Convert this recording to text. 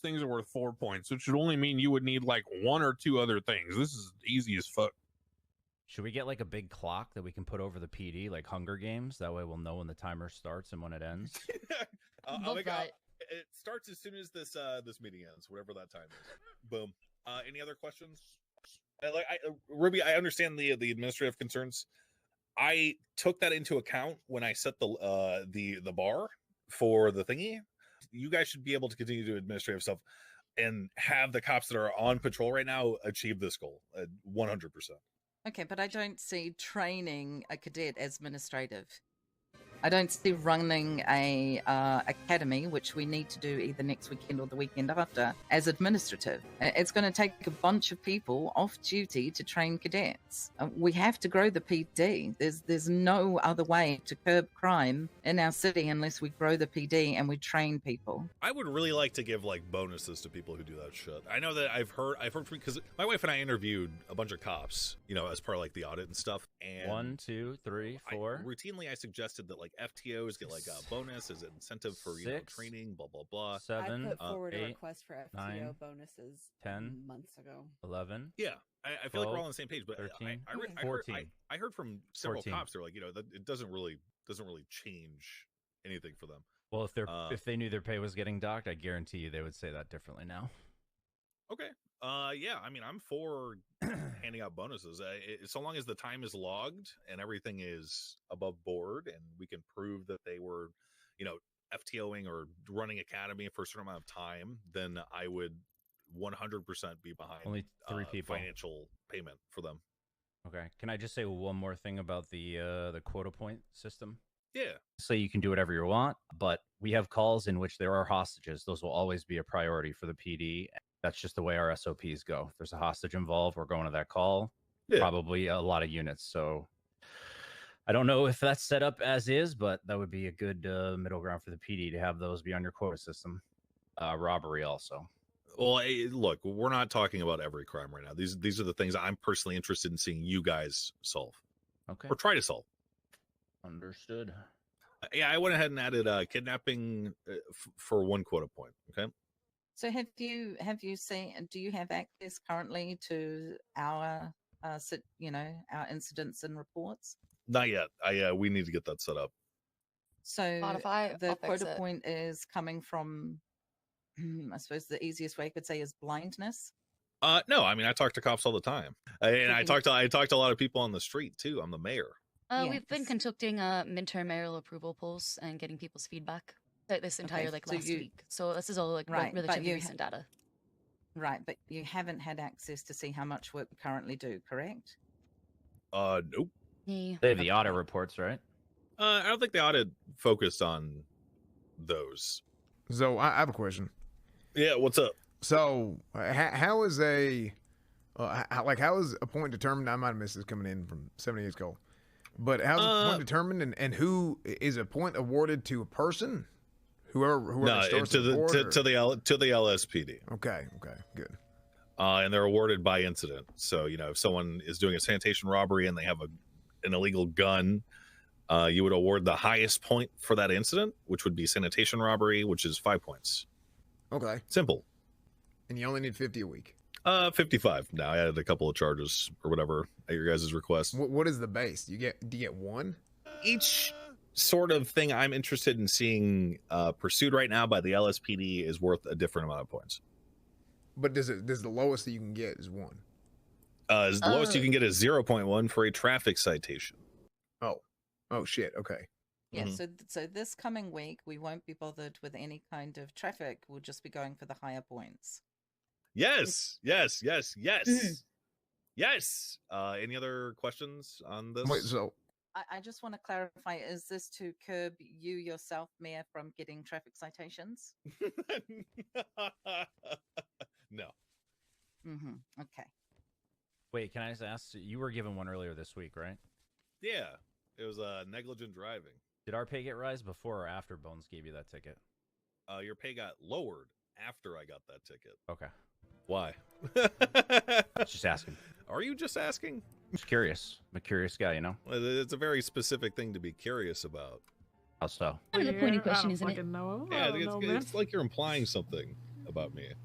things are worth four points, which would only mean you would need like one or two other things. This is easy as fuck. Should we get like a big clock that we can put over the PD, like Hunger Games? That way we'll know when the timer starts and when it ends. Uh, Love I'll make a- that. it starts as soon as this uh this meeting ends, whatever that time is. Boom. Uh, any other questions? I, like I, uh, Ruby, I understand the the administrative concerns. I took that into account when I set the uh the the bar for the thingy. You guys should be able to continue to do administrative stuff and have the cops that are on patrol right now achieve this goal uh, 100%. Okay, but I don't see training a cadet as administrative. I don't see running a uh, academy, which we need to do either next weekend or the weekend after, as administrative. I- It's going to take a bunch of people off duty to train cadets. Uh, We have to grow the PD. There's there's no other way to curb crime in our city unless we grow the PD and we train people. I would really like to give like bonuses to people who do that shit. I know that I've heard I've heard from because my wife and I interviewed a bunch of cops, you know, as part of like the audit and stuff. And One, two, three, I- four. routinely, I suggested that like FTOs get like a bonus as an incentive for you know Six. training, blah blah blah. seven, I put uh, forward a eight, request for FTO nine, bonuses Mm-hmm. 10, months ago. 11. Yeah, I, I feel like we're all Twelve, on the same page. But uh, I- I- 13, I, re- I, heard, I, 14. I heard from several 14. cops. They're like, you know, that it doesn't really doesn't really change anything for them. Well, if they're Uh, if they knew their pay was getting docked, I guarantee you they would say that differently now. Okay. Uh, yeah. I mean, I'm for handing out bonuses. Uh, i so long as the time is logged and everything is above board, and we can prove that they were, you know, FTOing or running academy for a certain amount of time, then I would 100% be behind Only three uh, people. financial payment for them. Okay. Can I just say one more thing about the uh, the quota point system? Yeah. say you can do whatever you want, but we have calls in which there are hostages. Those will always be a priority for the PD. That's just the way our SOPs go. If there's a hostage involved, we're going to that call. Yeah. Probably a lot of units. So I don't know if that's set up as is, but that would be a good uh, middle ground for the PD to have those be on your quota system. Uh, robbery also. Well, eh, look, we're not talking about every crime right now. These these are the things I'm personally interested in seeing you guys solve Okay. or try to solve. Understood. Uh, Yeah, I went ahead and added uh, kidnapping uh, f- for one quota point. Okay. So have you have you seen? Do you have access currently to our uh, sit- you know our incidents and reports? Not yet. I uh, we need to get that set up. So Spotify, the I'll fix quota it. point is coming from. I suppose the easiest way I could say is blindness. Uh, no, I mean I talk to cops all the time, I- and I Okay. talk to I talk to a lot of people on the street too. I'm the mayor. Uh, We've been Yes. conducting uh, midterm mayoral approval polls and getting people's feedback like this entire like so last you- week. So this is all like re- Right, but relatively you ha- recent data. Right, but you haven't had access to see how much work we currently do, correct? Uh, nope. Yeah. They have the audit reports, right? Uh, I don't think the audit focused on those. So I, I have a question. Yeah, what's up? So uh, how, how is a uh, how, like how is a point determined? I might have missed this coming in from seventy years ago, but how's a Uh, point determined, and, and who is a point awarded to a person? Whoever whoever No, stores to the report to, or- to the L, to the LSPD. okay okay good uh, and they're awarded by incident. So you know, if someone is doing a sanitation robbery and they have a an illegal gun, uh, you would award the highest point for that incident, which would be sanitation robbery, which is five points. okay, Simple. and you only need fifty a week. Uh, fifty-five. Now I added a couple of charges or whatever at your guys' request. What, what is the base? You get do you get one? Each sort of thing I'm interested in seeing uh, pursued right now by the LSPD is worth a different amount of points. But does it does the lowest that you can get is one? Uh, as the lowest you Oh. can get is zero point one for a traffic citation. Oh oh shit okay Yeah. Mm-hmm. Mhm. So th- so this coming week we won't be bothered with any kind of traffic. We'll just be going for the higher points. Yes, yes, yes, yes, yes. Uh, any other questions on this? wait so I, I just want to clarify: is this to curb you yourself, Mayor, from getting traffic citations? no. Mm-hmm. Okay. Wait, can I just ask? You were given one earlier this week, right? Yeah, it was uh, negligent driving. Did our pay get rise before or after Bones gave you that ticket? Uh, your pay got lowered after I got that ticket. Okay. Why? Just asking. Are you just asking? Just curious. I'm a curious guy, you know? Well, It's a very specific thing to be curious about. How so? Kind of the point of question, isn't it? yeah, I think it's, it's like you're implying something about me.